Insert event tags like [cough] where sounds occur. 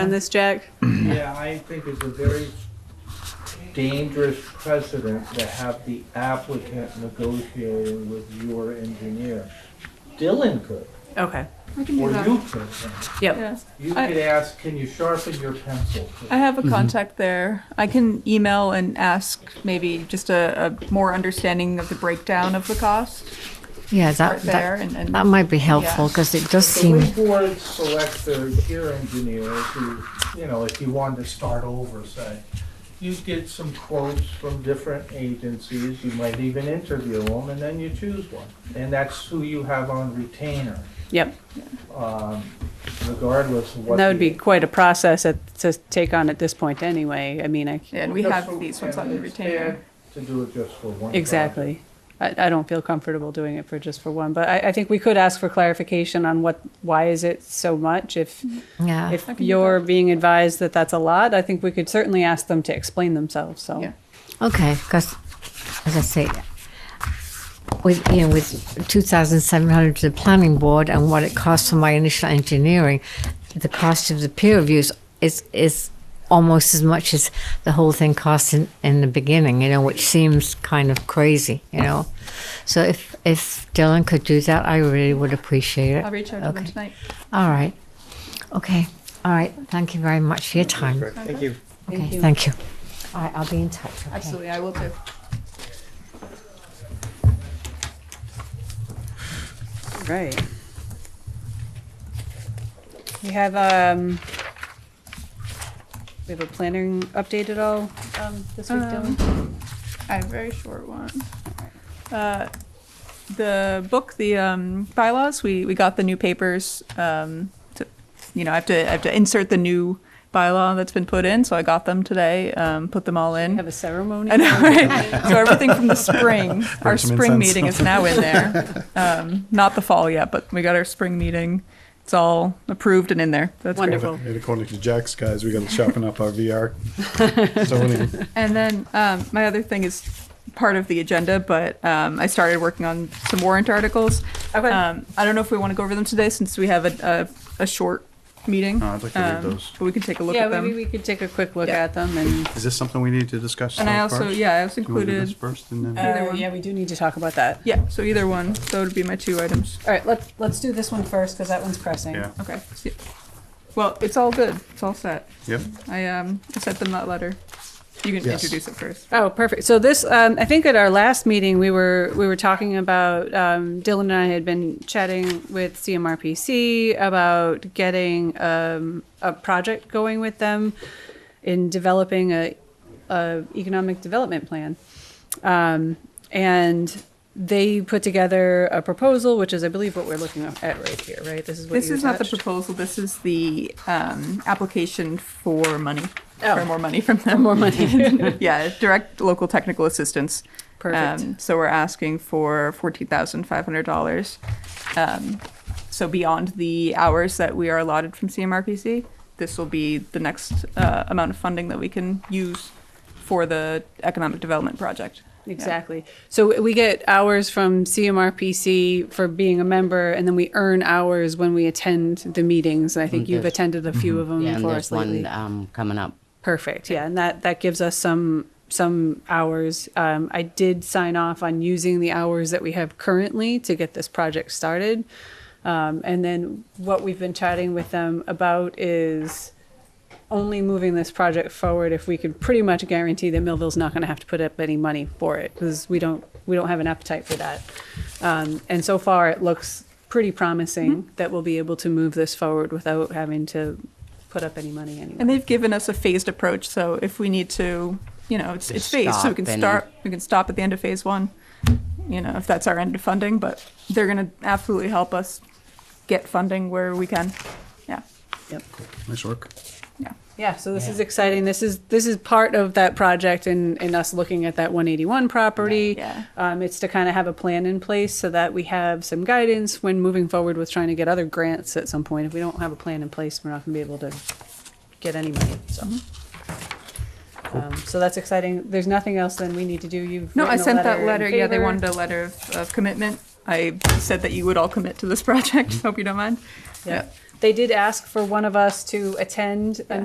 on this, Jack? Yeah, I think it's a very dangerous precedent to have the applicant negotiating with your engineer. Dylan could, Okay, I can do or that. you could. yep, Yes, You I- could ask, can you sharpen your pencil? I have Mm-hmm. a contact there. I can email and ask maybe just a, a more understanding of the breakdown of the cost Yeah, that, right there that, and, and that might be helpful because it does The way seem, board selects their peer engineers who, you know, if you wanted to start over, say, you get some quotes from different agencies, you might even interview them, and then you choose one. And that's who you have on retainer. yep. um, regardless of what. And that would the- be quite a process at- to take on at this point anyway. I mean, I, Yeah, and we Just have for- these ones on and the it's retainer. fair To do it just for one. project. exactly. I, I don't feel comfortable doing it for just for one, but I, I think we could ask for clarification on what, why is it so much? If, yeah. if Mm-hmm. I can do you're being advised that that's a lot, I think we could certainly ask them to explain themselves, so. Yeah. Okay, because as I say, with, you know, with 2,700 to the planning board and what it costs for my initial engineering, the cost of the peer reviews is, is almost as much as the whole thing costs in, in the beginning, you know, which seems kind of crazy, you know. So if, if Dylan could do that, I really would appreciate it. I'll reach out to them Okay. tonight. All right. Okay. All right. Thank you very much for your time. Thank you. Okay, thank you. All right, I'll be in touch. okay? Absolutely, I will too. Right. We have, um, we have a planning update at all, um, this week, Dylan? I have a very short one. Uh, the book, the um, bylaws, we, we got the new papers. Um, to, you know, I have to I have to insert the new bylaw that's been put in, so I got them today. Um, put them all in. Have a ceremony? [laughs] [laughs] I know, right? so everything from the spring, our some spring incense. meeting is now in there. Um, not the fall yet, but we got our spring meeting. It's all approved and in there. That's great. Wonderful. And according to Jack's guys, we gotta sharpen up [laughs] our VR zoning. And then um, my other thing is part of the agenda, but um, I started working on some warrant articles. Okay. Um, I don't know if we want to go over them today since we have a, a, a short meeting. No, I'd like to read Um, Uh, those. But we can take a look Yeah, at them. maybe we could take a quick look Yeah. at them and. Is this something we need to discuss? and I uh, also, first? yeah, I also Do you wanna do included. uh, this first and then? Either one. Um, Yeah, we do need to talk about that. Yeah, so either one. So would be my two items. All right, let's, let's do this one first, because that one's pressing. Yeah, Okay. see- Well, it's all good. It's all set. yep. I um I sent them that letter. You can Yes. introduce it first. Oh, perfect. So this, um, I think at our last meeting, we were, we were talking about, um, Dylan and I had been chatting with CMRPC about getting, um, a project going with them in developing a, a economic development plan. Um, and they put together a proposal, which is, I believe, what we're looking at right here, right? This is what you This is not the attached? proposal. This is the um, application for money. Oh. For more money from them. More money. [laughs] yeah, direct local technical assistance. Perfect. Um, so we're asking for fourteen thousand five hundred dollars. Um, so beyond the hours that we are allotted from CMRPC, this will be the next uh, amount of funding that we can use for the economic development project. Yeah. Exactly. So we get hours from CMRPC for being a member, and then we earn hours when we attend the meetings. I think Mm, you've there's- attended a few of them Yeah, and for there's us lately. one um, coming up. Perfect. Yeah, and that that gives us some some hours. Um, I did sign off on using the hours that we have currently to get this project started, um, and then what we've been chatting with them about is only moving this project forward if we could pretty much guarantee that Millville's not going to have to put up any money for it because we don't we don't have an appetite for that. Um, and so far, it looks pretty promising that we'll be able to move this forward without having to put up any money anyway. And they've given us a phased approach, so if we need to, you know, it's, it's phased, so we can Stop and- start, we can stop at the end of phase one, you know, if that's our end of funding, but they're gonna absolutely help us get funding where we can. Yeah, Nice work. yeah. Yeah, so this is exciting. This is this is part of that project and and us looking at that 181 property. Right, yeah. Um, it's to kind of have a plan in place so that we have some guidance when moving forward with trying to get other grants at some point. If we don't have a plan in place, we're not going to be able to get any money. So. Um, so that's exciting. There's nothing else then we need to do. You've Mm-hmm. No, I written a sent that in letter, yeah, they favor. wanted a letter of, of commitment I said that you would all commit [laughs] to this project. Hope you don't mind. Yeah. They did ask for one of us to attend a